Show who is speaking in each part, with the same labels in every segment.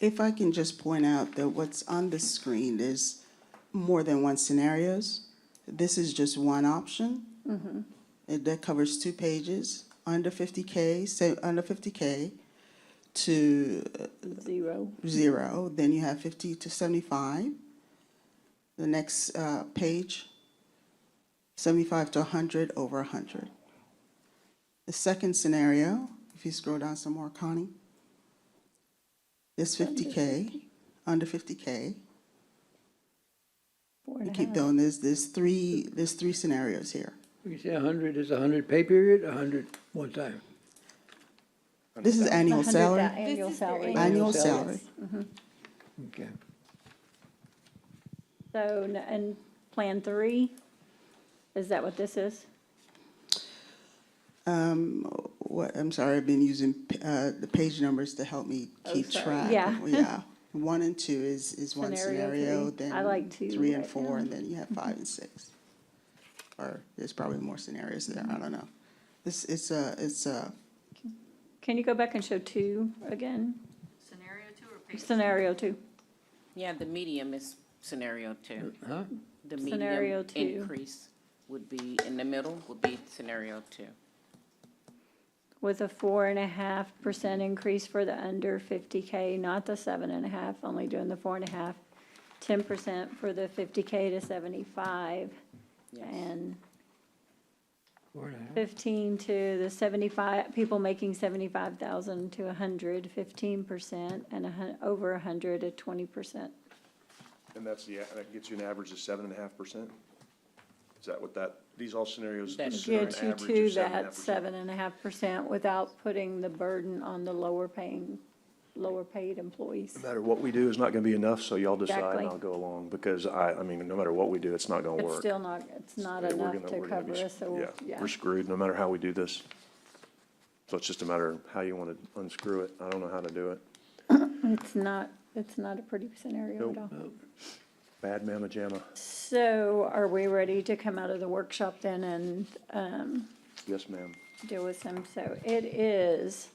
Speaker 1: If I can just point out that what's on the screen is more than one scenarios. This is just one option. It- That covers two pages, under fifty K, say, under fifty K to uh,
Speaker 2: Zero.
Speaker 1: zero, then you have fifty to seventy-five. The next, uh, page, seventy-five to hundred, over hundred. The second scenario, if you scroll down some more, Connie, is fifty K, under fifty K.
Speaker 2: Four
Speaker 1: You
Speaker 2: and a
Speaker 1: keep
Speaker 2: half.
Speaker 1: going, there's, there's three, there's three scenarios here.
Speaker 3: You say a hundred is a hundred pay period, a hundred one time.
Speaker 1: This is annual
Speaker 2: $100,000
Speaker 1: salary,
Speaker 2: Annual
Speaker 4: This is their
Speaker 2: salary.
Speaker 4: annual
Speaker 1: annual
Speaker 3: salary.
Speaker 1: salary.
Speaker 3: Okay.
Speaker 2: So, n- and Plan Three, is that what this is?
Speaker 1: Um, what, I'm sorry, I've been using, uh, the page numbers to help me keep
Speaker 2: Oh, sorry.
Speaker 1: track.
Speaker 2: Yeah.
Speaker 1: Yeah. One and two is, is one
Speaker 2: Scenario
Speaker 1: scenario,
Speaker 2: three.
Speaker 1: then.
Speaker 2: I like two
Speaker 1: Three and
Speaker 2: right
Speaker 1: four,
Speaker 2: now.
Speaker 1: and then you have five and six. Or there's probably more scenarios there,
Speaker 2: Mm-hmm.
Speaker 1: I don't know. This, it's a, it's a,
Speaker 2: Can you go back and show two again?
Speaker 5: Scenario two or page?
Speaker 2: Scenario two.
Speaker 4: Yeah, the medium is scenario two.
Speaker 3: Huh?
Speaker 4: The
Speaker 2: Scenario
Speaker 4: medium
Speaker 2: two.
Speaker 4: increase would be, in the middle would be scenario two.
Speaker 2: With a four and a half percent increase for the under fifty K, not the seven and a half, only doing the four and a half. Ten percent for the fifty K to seventy-five,
Speaker 4: Yes.
Speaker 2: and
Speaker 3: Four and a half.
Speaker 2: fifteen to the seventy-five, people making seventy-five thousand to a hundred, fifteen percent, and a hun, over a hundred at twenty percent.
Speaker 6: And that's the, that gets you an average of seven and a half percent? Is that what that, these all scenarios?
Speaker 4: That
Speaker 6: consider an
Speaker 2: Get you
Speaker 6: average of
Speaker 2: to
Speaker 6: 7.5%?
Speaker 2: that seven and a half percent without putting the burden on the lower paying, lower paid employees.
Speaker 6: No matter what we do, it's not gonna be enough, so y'all decide
Speaker 2: Exactly.
Speaker 6: and I'll go along, because I, I mean, no matter what we do, it's not gonna
Speaker 2: It's
Speaker 6: work.
Speaker 2: still not, it's not
Speaker 6: We're
Speaker 2: enough
Speaker 6: gonna-
Speaker 2: to
Speaker 6: we're gonna
Speaker 2: cover
Speaker 6: be
Speaker 2: us,
Speaker 6: sc-
Speaker 2: so, yeah.
Speaker 6: We're screwed, no matter how we do this. So it's just a matter of how you wanna unscrew it. I don't know how to do it.
Speaker 2: It's not, it's not a pretty scenario at
Speaker 6: Nope.
Speaker 2: all.
Speaker 6: Bad mamma jamma.
Speaker 2: So are we ready to come out of the workshop then and, um,
Speaker 6: Yes, ma'am.
Speaker 2: deal with them. So it is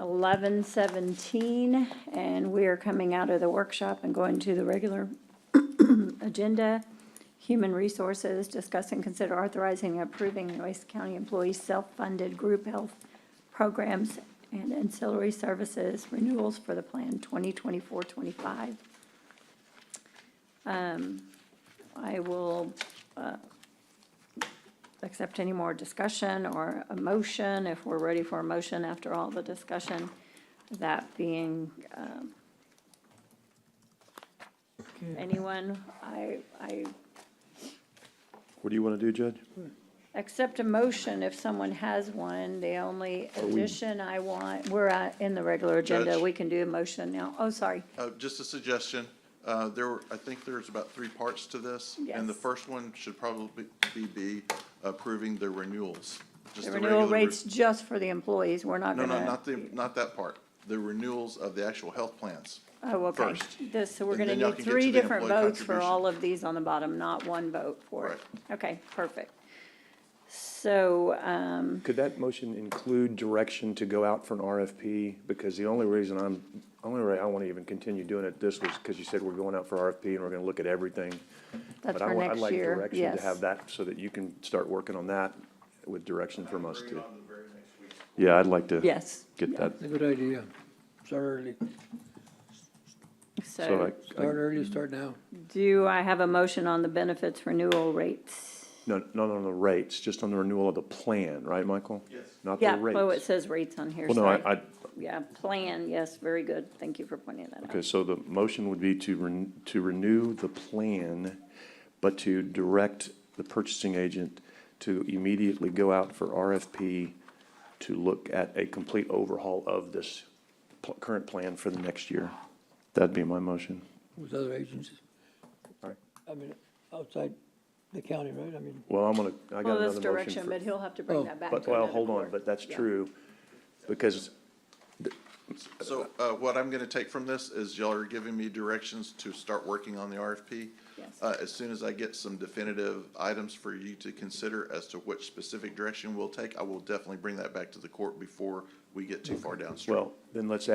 Speaker 2: eleven seventeen, and we are coming out of the workshop and going to the regular agenda. Human Resources, discuss and consider authorizing and approving Noise County employees' self-funded group health programs and ancillary services renewals for the plan 2024-25. Um, I will accept any more discussion or a motion, if we're ready for a motion after all the discussion, that being, um, anyone, I, I
Speaker 6: What do you wanna do, Judge?
Speaker 2: accept a motion if someone has one. The only addition I want, we're at, in the regular agenda,
Speaker 7: Judge?
Speaker 2: we can do a motion now. Oh, sorry,
Speaker 7: Uh, Just a suggestion, Uh, there were, I think there's about three parts to this. And the
Speaker 2: Yes.
Speaker 7: first one should probably be- be approving the renewals. just
Speaker 2: the renewal
Speaker 7: regular re-
Speaker 2: rates just for the employees, we're not
Speaker 7: No,
Speaker 2: gonna.
Speaker 7: no, not the, not that part, the renewals of the actual health plans.
Speaker 2: Oh, okay.
Speaker 7: first.
Speaker 2: This, so we're
Speaker 7: And
Speaker 2: gonna
Speaker 7: then y'all
Speaker 2: need
Speaker 7: can get
Speaker 2: three
Speaker 7: to the
Speaker 2: different
Speaker 7: employee
Speaker 2: votes for
Speaker 7: contribution.
Speaker 2: all of these on the bottom, not one vote for it. Okay, perfect. So, um,
Speaker 6: Could that motion include direction to go out for an RFP? Because the only reason I'm, only way I want to even continue doing it this was because you said we're going out for RFP and we're going to look at everything.
Speaker 2: that's
Speaker 6: But I
Speaker 2: for
Speaker 6: want- I'd
Speaker 2: next
Speaker 6: like
Speaker 2: year,
Speaker 6: direction To have
Speaker 2: yes.
Speaker 6: that so that you can start working on that with direction from us too. Yeah, I'd like to
Speaker 2: Yes,
Speaker 6: get that.
Speaker 3: It's a good idea. Start early,
Speaker 6: So
Speaker 2: so
Speaker 6: I, I-
Speaker 3: start early, start now.
Speaker 2: do I have a motion on the benefits renewal rates?
Speaker 6: no, not on the rates, just on the renewal of the plan, right, Michael? Yes. Not the
Speaker 2: Yeah, oh, it
Speaker 6: rates.
Speaker 2: says rates on here,
Speaker 6: Well, no,
Speaker 2: sorry.
Speaker 6: I, I,
Speaker 2: Yeah, plan, yes, very good, thank you for pointing that out.
Speaker 6: Okay, so the motion would be to ren, to renew the plan, but to direct the purchasing agent to immediately go out for RFP to look at a complete overhaul of this pl- current plan for the next year. That'd be my motion.
Speaker 3: with other agencies.
Speaker 6: Alright.
Speaker 3: I mean, outside the county, right? I mean,
Speaker 6: Well, I'm gonna, I
Speaker 2: Well,
Speaker 6: got
Speaker 2: this
Speaker 6: another
Speaker 2: direction,
Speaker 6: motion.
Speaker 2: but
Speaker 6: for-
Speaker 2: he'll have to
Speaker 3: Oh,
Speaker 2: bring that back to
Speaker 6: But, well,
Speaker 2: another
Speaker 6: hold on,
Speaker 2: board.
Speaker 6: but that's
Speaker 2: Yeah.
Speaker 6: true, because,
Speaker 7: So uh, what I'm going to take from this is y'all are giving me directions to start working on the RFP.
Speaker 2: Yes.
Speaker 7: Uh, As soon as I get some definitive items for you to consider as to which specific direction we'll take, I will definitely bring that back to the court before we get too far downstream.
Speaker 6: well, then let's